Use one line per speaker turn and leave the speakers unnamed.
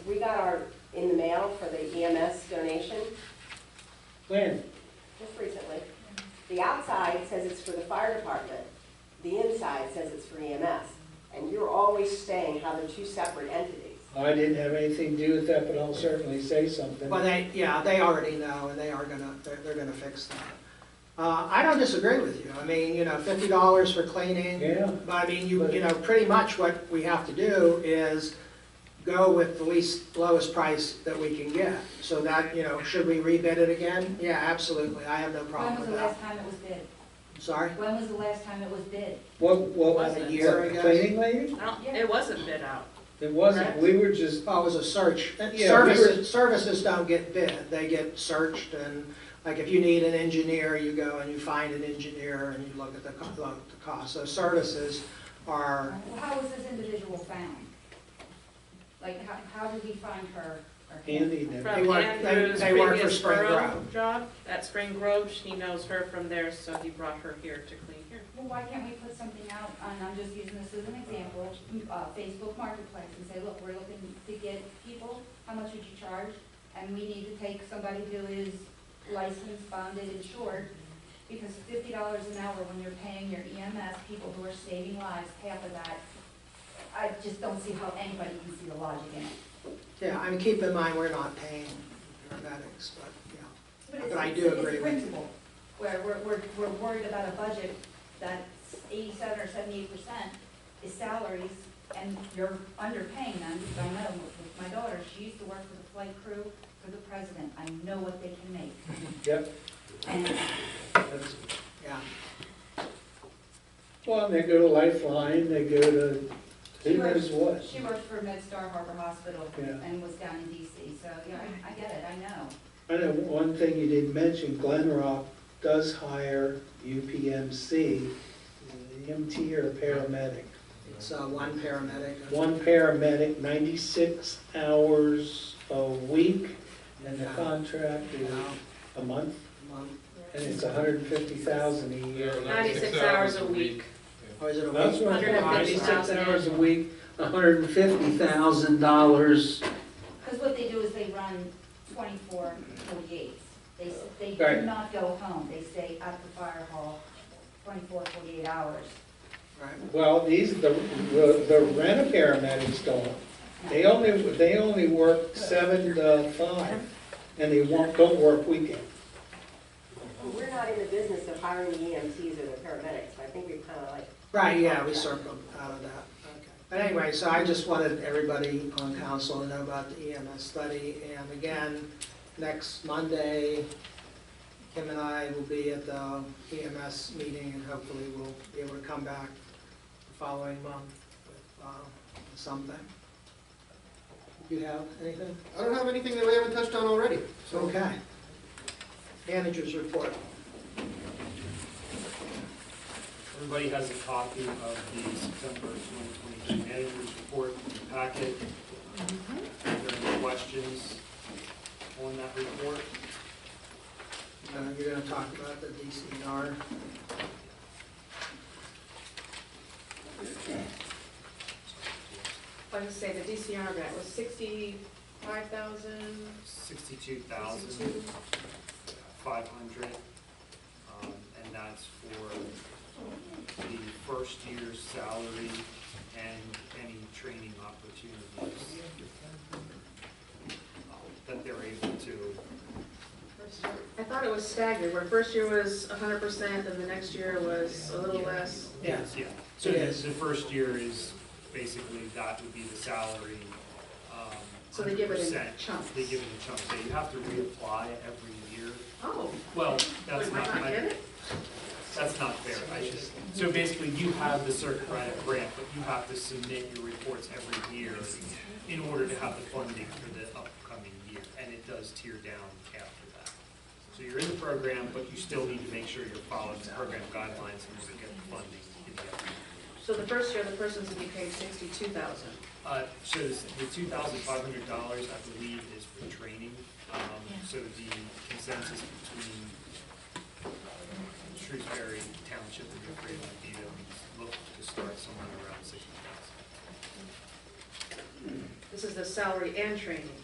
got our, in the mail for the EMS donation
When?
just recently. The outside says it's for the fire department, the inside says it's for EMS. And you're always saying how they're two separate entities.
I didn't have anything to do with that, but I'll certainly say something.
Well, they, yeah, they already know, and they are gonna, they're, they're gonna fix that. Uh, I don't disagree with you, I mean, you know, fifty dollars for cleaning.
Yeah.
But I mean, you, you know, pretty much what we have to do is go with the least, lowest price that we can get. So that, you know, should we rebid it again? Yeah, absolutely, I have no
When
problem
was
with
the
that.
last time it was bid?
Sorry?
When was the last time it was bid?
What, what,
Was
what,
it?
Year ago?
cleaning lady?
I don't, it wasn't bid out.
It wasn't, we were just,
Oh, it was a search.
Uh, Yeah, we
Services, services don't get bid, they get searched, and like if you need an engineer, you go and you find an engineer and you look at the, co- look at the cost. So services are,
Well, how was this individual found? Like, how, how did we find her? or him?
Andy did.
They
From
work- they-
Andrew's
they work for
previous
Spring
borough
Grove.
job, at Spring Grove, she knows her from there, so he brought her here to clean here.
Well, why can't we put something out, and I'm just using this as an example, uh, Facebook Marketplace, and say, look, we're looking to get people, how much would you charge? And we need to take somebody who is licensed, bonded, insured, because fifty dollars an hour when you're paying your EMS, people who are saving lives, half of that, I just don't see how anybody can see the logic in it.
yeah, I mean, keep in mind, we're not paying paramedics, but, yeah.
it's-
But I
it's-
do agree
It's a
with
principle, where we're, we're, we're worried about a budget that's eighty-seven or seventy-eight percent is salaries, and you're underpaying them, because I know, with my daughter, she used to work for the flight crew for the president, I know what they can make.
Yep.
And
That's-
Yeah,
Well, and they go to Lifeline, they go to, who knows what.
she worked for MedStar Harbor Hospital
Yeah.
and was down in DC, so, yeah, I, I get it, I know.
I know one thing you didn't mention, Glen Rock does hire UPMC, uh, MT or paramedic.
it's uh, one paramedic.
One paramedic, ninety-six hours a week, and the contract
you
is
know,
a month,
one-
and it's a hundred and fifty thousand a year.
Ninety-six hours a week.
Or Oh, is it a?
That's
week?
what, ninety-six
150,000.
hours a week, hundred and fifty thousand dollars.
Because what they do is they run 24 48s. They, s- they
Right.
do not go home, they stay at the fire hall 24, 48 hours.
Right,
Well, these, the, the the rent-a-paramedics don't. They only, they only work seven to five, and they won't, don't work weekends.
Well, We're not in the business of hiring the EMTs or the paramedics, so I think we've kind of like,
right, yeah, we circled out of that, okay. But anyway, so I just wanted everybody on council to know about the EMS study, and again, next Monday, Kim and I will be at the EMS meeting, and hopefully we'll be able to come back the following month with uh, something. You have anything?
I don't have anything that we haven't touched on already. So
Okay. Managers report.
Everybody has a copy of the September 2022 managers report in the packet. Are there any questions on that report?
Uh, You're gonna talk about the DCNR.
Like I say, the DCR grant was sixty-five thousand,
62,500, um, and that's for the first year's salary and any training opportunities uh, that they're able to
I thought it was staggered, where first year was hundred percent, and the next year was a little less.
Yes.
Yeah, so the,
Yes.
the first year is basically, that would be the salary. um,
So they give it in
100%.
chunks.
They give it in chunks, so you have to reapply every year.
Oh,
Well,
we
that's
might
not,
not get
I-
it?
that's not fair, I should, so basically, you have the CERT credit grant, but you have to submit your reports every year in order to have the funding for the upcoming year, and it does tear down after that. So you're in the program, but you still need to make sure you're following the program guidelines in order to get the funding in the upcoming year.
So the first year, the person's gonna be paid sixty-two thousand.
Uh, so this- the two thousand five hundred dollars, I believe, is for training. Um, so the consensus between uh, Shrewsbury Township and New Freedom would be that we look to start somewhere around sixty thousand.
The this is the salary and training.